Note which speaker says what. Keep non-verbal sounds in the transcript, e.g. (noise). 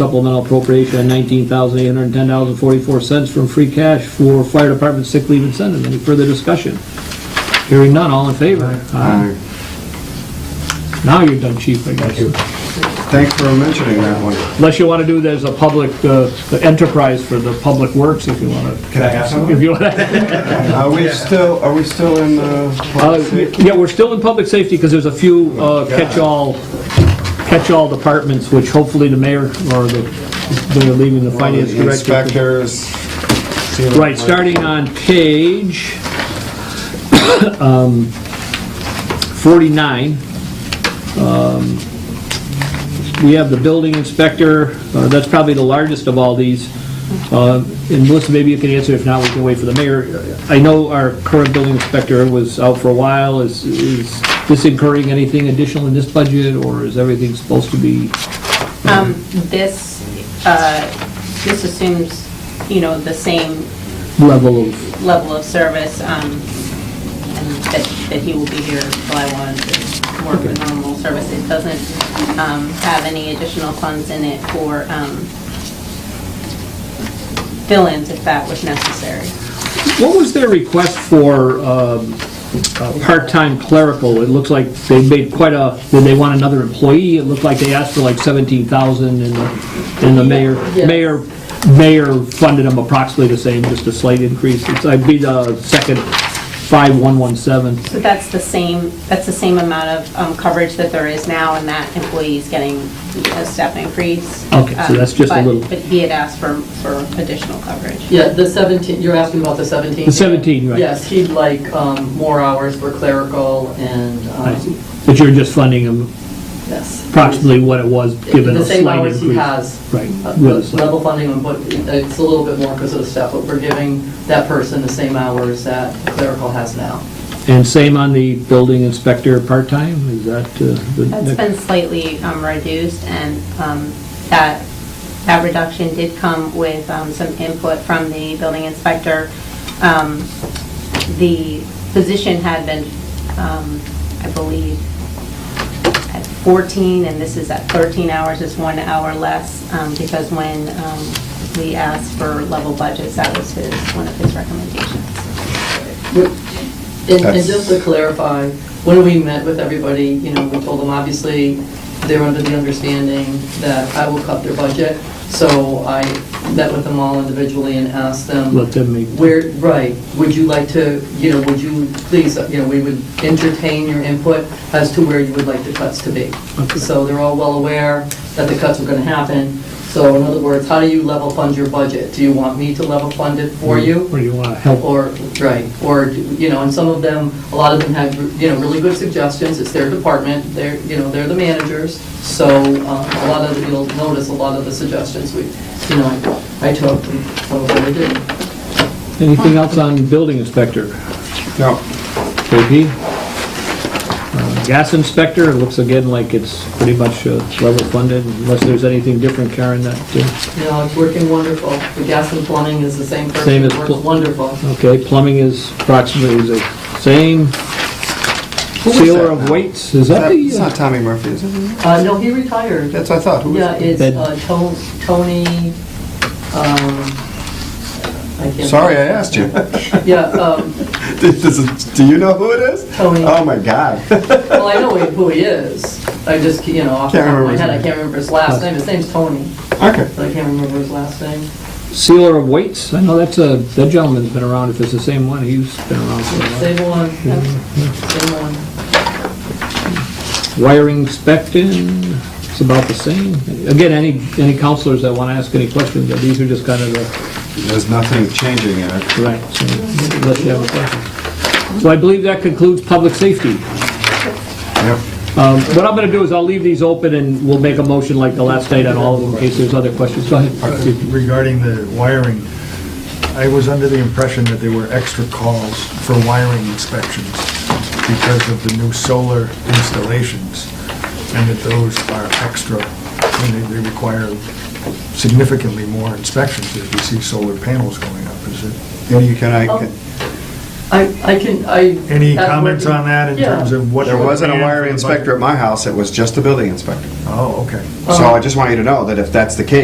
Speaker 1: supplemental appropriation of nineteen thousand eight hundred and ten dollars and forty-four cents from free cash for fire department sick leave incentive. Any further discussion? Hearing none, all in favor?
Speaker 2: Uh,
Speaker 1: Aye. Now you're done, chief, I guess.
Speaker 2: Thanks for mentioning that one.
Speaker 1: Unless you want to do it as a public, uh, enterprise for the public works, if you want to.
Speaker 3: Can I have some?
Speaker 1: If you want to.
Speaker 2: Are we still, are we still in the public
Speaker 1: Uh,
Speaker 2: safety?
Speaker 1: Yeah, we're still in public safety because there's a few uh, catch-all, catch-all departments, which hopefully the mayor or the, they're leaving the finance
Speaker 2: The
Speaker 1: director. to-
Speaker 2: Inspectors. ceiling
Speaker 1: Right, starting on page (coughs) um, 49, um, we have the building inspector, uh, that's probably the largest of all these. Uh, And Melissa, maybe you can answer, if not, we can wait for the mayor. I know our current building inspector was out for a while, is is this incurring anything additional in this budget, or is everything supposed to be?
Speaker 4: Um, This, uh, this assumes, you know, the same
Speaker 1: Level of,
Speaker 4: level of service, um, and that that he will be here July 1 to work with normal service. It doesn't um, have any additional funds in it for um, fill-ins if that was necessary.
Speaker 1: What was their request for um, uh, part-time clerical? It looks like they made quite a, did they want another employee? It looked like they asked for like 17,000 and the, and the mayor,
Speaker 4: Yeah.
Speaker 1: mayor, mayor funded them approximately the same, just a slight increase. It's, I'd be the second 5117.
Speaker 4: So that's the same, that's the same amount of um, coverage that there is now, and that employee's getting a step increase.
Speaker 1: Okay, so
Speaker 4: Um,
Speaker 1: that's just a
Speaker 4: but-
Speaker 1: little-
Speaker 4: But he had asked for, for additional coverage.
Speaker 5: Yeah, the 17, you're asking about the 17?
Speaker 1: The 17, right.
Speaker 5: Yes, he'd like um, more hours for clerical and,
Speaker 1: I
Speaker 5: um,
Speaker 1: see. But you're just funding them
Speaker 5: yes.
Speaker 1: approximately what it was, given a
Speaker 5: The same
Speaker 1: slight
Speaker 5: hours
Speaker 1: increase.
Speaker 5: he has.
Speaker 1: Right.
Speaker 5: Uh,
Speaker 1: with a slight-
Speaker 5: Level funding, but it's a little bit more because of the step, but we're giving that person the same hours that clerical has now.
Speaker 1: And same on the building inspector part-time? Is that uh, the
Speaker 4: That's
Speaker 1: next-
Speaker 4: been slightly um, reduced, and um, that, that reduction did come with um, some input from the building inspector. Um, The position had been, um, I believe, at 14, and this is at 13 hours, is one hour less, um, because when um, we asked for level budgets, that was his, one of his recommendations.
Speaker 5: And and
Speaker 2: That's-
Speaker 5: just to clarify, when we met with everybody, you know, we told them, obviously, they're under the understanding that I will cut their budget. So I met with them all individually and asked them.
Speaker 1: Let them make-
Speaker 5: Where, right, would you like to, you know, would you please, you know, we would entertain your input as to where you would like the cuts to be. So they're all well aware that the cuts are gonna happen. So in other words, how do you level fund your budget? Do you want me to level fund it for you?
Speaker 1: Or you want to help?
Speaker 5: Or, right, or, you know, and some of them, a lot of them have, you know, really good suggestions, it's their department, they're, you know, they're the managers, so um, a lot of, you'll notice a lot of the suggestions we, you know, I took, and some of them I didn't.
Speaker 1: Anything else on building inspector?
Speaker 2: No,
Speaker 1: JP? Uh, Gas inspector, it looks again like it's pretty much uh, level funded, unless there's anything different, Karen, that, uh,
Speaker 5: You know, it's working wonderful, the gas and plumbing is the same
Speaker 1: Same
Speaker 5: person,
Speaker 1: as
Speaker 5: it works
Speaker 1: pl-
Speaker 5: wonderful.
Speaker 1: uh, okay, plumbing is approximately the same.
Speaker 2: was
Speaker 1: Sealer
Speaker 2: that
Speaker 1: of
Speaker 2: now?
Speaker 1: weights, is
Speaker 2: Is
Speaker 1: that
Speaker 2: that- it's
Speaker 1: the, uh,
Speaker 2: not Tommy Murphy, is it?
Speaker 5: Uh, no, he retired.
Speaker 2: That's what I thought. Who is
Speaker 5: Yeah,
Speaker 2: it?
Speaker 5: it's
Speaker 1: That-
Speaker 5: uh, To- Tony, um, I can't.
Speaker 2: Sorry, I asked you. (laughs)
Speaker 5: Yeah, um,
Speaker 2: This is- Do you know who it is?
Speaker 5: Tony.
Speaker 2: Oh, my God. (laughs)
Speaker 5: Well, I know who he is. I just, you know, off the
Speaker 2: Can't
Speaker 5: top of
Speaker 2: remember
Speaker 5: my
Speaker 2: his
Speaker 5: head, I
Speaker 2: name.
Speaker 5: can't remember his last name. His name's Tony,
Speaker 2: Okay.
Speaker 5: but I can't remember his last name.
Speaker 1: uh, sealer of weights? I know that's a, that gentleman's been around, if it's the same one, he's been around for a while.
Speaker 5: Same one, yeah,
Speaker 6: Hmm.
Speaker 5: same one.
Speaker 1: Wiring inspecting, it's about the same. Again, any, any counselors that want to ask any questions, but these are just kind of the
Speaker 2: There's nothing changing in it.
Speaker 1: Right, so, unless you have a question. So I believe that concludes public safety.
Speaker 2: Yep.
Speaker 1: Um, What I'm going to do is I'll leave these open and we'll make a motion like the last night on all of them in case there's other questions. Go ahead.
Speaker 6: Regarding the wiring, I was under the impression that there were extra calls for wiring inspections because of the new solar installations, and that those are extra, and they- they require significantly more inspections if you see solar panels going up. Is it,
Speaker 2: You can, I can.
Speaker 5: I, I can, I.
Speaker 6: any
Speaker 5: that's
Speaker 6: comments
Speaker 5: working.
Speaker 6: on that in
Speaker 5: Yeah.
Speaker 6: terms of what?
Speaker 2: There wasn't a wiring
Speaker 6: inspector.
Speaker 2: inspector at my house, it was just the building inspector.
Speaker 6: Oh, okay.
Speaker 2: So I just want you to know that if that's the case,